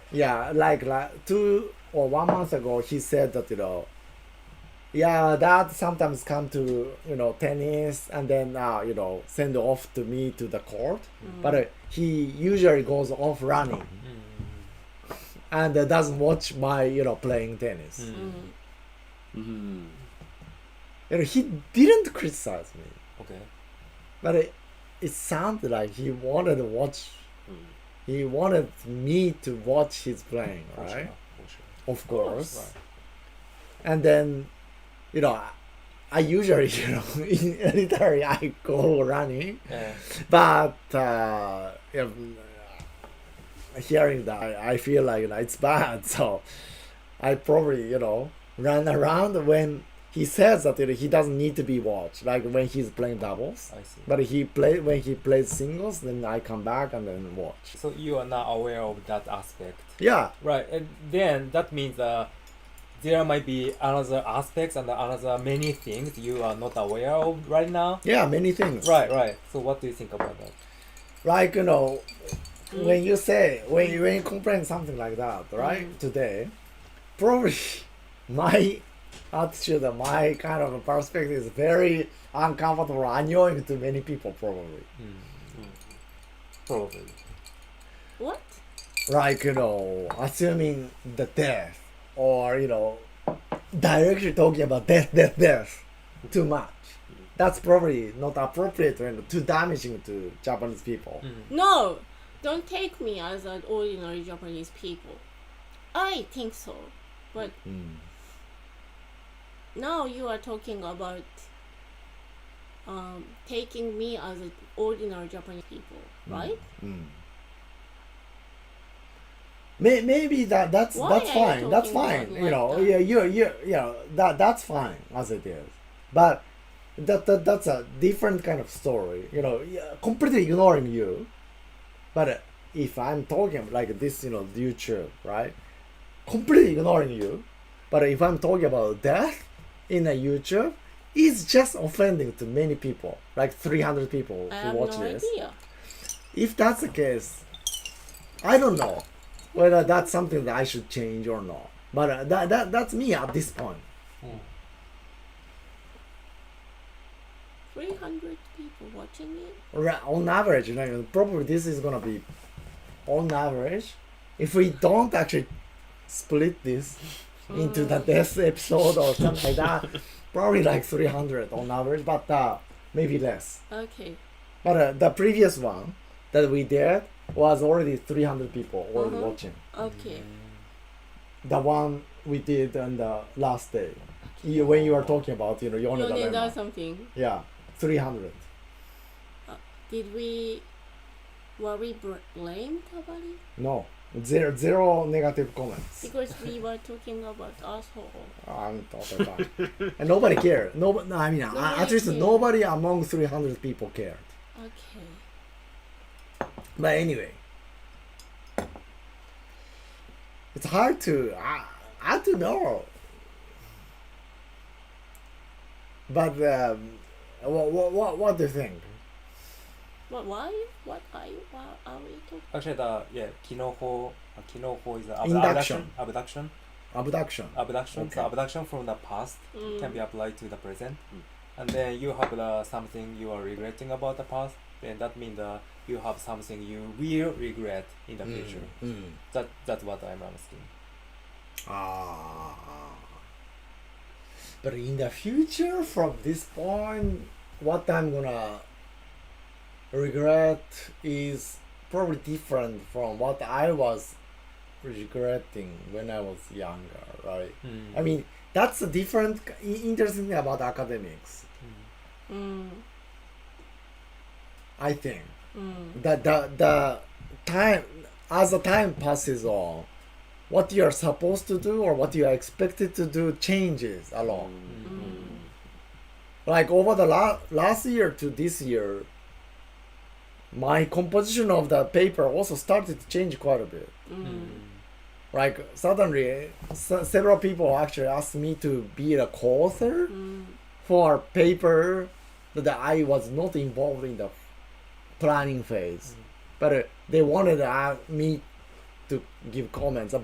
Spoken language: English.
Yeah, like, like two or one month ago, he said that you know, yeah, that sometimes come to you know tennis and then uh, you know send off to me to the court, Mm. but uh, he usually goes off running and uh, doesn't watch my you know playing tennis. Mm. Mm. You know, he didn't criticize me, Okay. but it, it sounded like he wanted to watch. Mm. He wanted me to watch his playing, For sure, right? for sure. Of course. Right. and then you know I- i usually you know in military i go running Yeah. but uh if, uh, hearing that I, I feel like you know, it's bad so i probably you know run around when he says that you know, he doesn't need to be watched like when he's playing doubles I see. but he play when he plays singles then i come back and then watch so you are not aware of that aspect. yeah Right, and then that means uh, there might be another aspects and another many things you are not aware of right now. yeah many things Right, right. So what do you think about that? like you know when you say when you, when you complain something like that right today probably my attitude and my kind of perspective is very uncomfortable annoying to many people probably Probably. What? like you know assuming the death or you know directly talking about death death death too much that's probably not appropriate and too damaging to japanese people No, don't take me as an ordinary Japanese people. I think so, but Mm. now you are talking about um, taking me as an ordinary Japanese people, Mm. right? May, maybe that that's Why that's are you fine. That's talking fine. about You know, like yeah, that? you you yeah, that that's fine as it is. But that, that that's a different kind of story. You know, yeah, completely ignoring you. But uh, if I'm talking like this, you know, YouTube, right? Completely ignoring you. But if I'm talking about death in a YouTube, it's just offending to many people, like 300 people I who have watch no this idea. if that's the case, I don't know whether that's something that I should change or not. But uh, that, that that's me at this point. 300 people watching it? Ra- On average, you know, probably this is gonna be on average. If we don't actually split this into the death episode or something like that, probably like 300 on average, but uh, maybe less. Okay. But uh, the previous one that we did was already 300 people already Uh-huh. watching. Mm. Okay. Mm-hmm. the one we did on the last day you, when you were talking about you know You Yoneda need Lemma. something. yeah 300 Did we were we br- blamed about it? no zero zero negative comments Because we were talking about asshole. i'm talking about and nobody cared no, no i mean uh Nobody at least cared. nobody among 300 people cared Okay. but anyway it's hard to i, I don't know but um, what, what, what do you think What why you? What are you? What are we talking? Actually, the yeah, kinoho, uh, kinoho is the ab- Induction. abduction, abduction, abduction abduction. So Okay. abduction from the past can be applied to the present, Mm. and then you have the something you are regretting about the past. Then that means uh, you have something you will regret in the future. Mm. That that's what I'm asking. Ah. But in the future, from this point, what I'm gonna regret is probably different from what I was regretting when I was younger, right? Mm. I mean, that's a different, i- interesting thing about academics, Mm, I think. mm, The, the, the time, as the time passes on, what you're supposed to do or what you are expected to do changes a lot. like over the la- last year to this year my composition of the paper also started to change quite a bit Hmm. Mm. Mm. like suddenly se- several people actually asked me to be a co-author mm. for a paper that i was not involved in the planning phase but uh, they wanted uh, me to give comments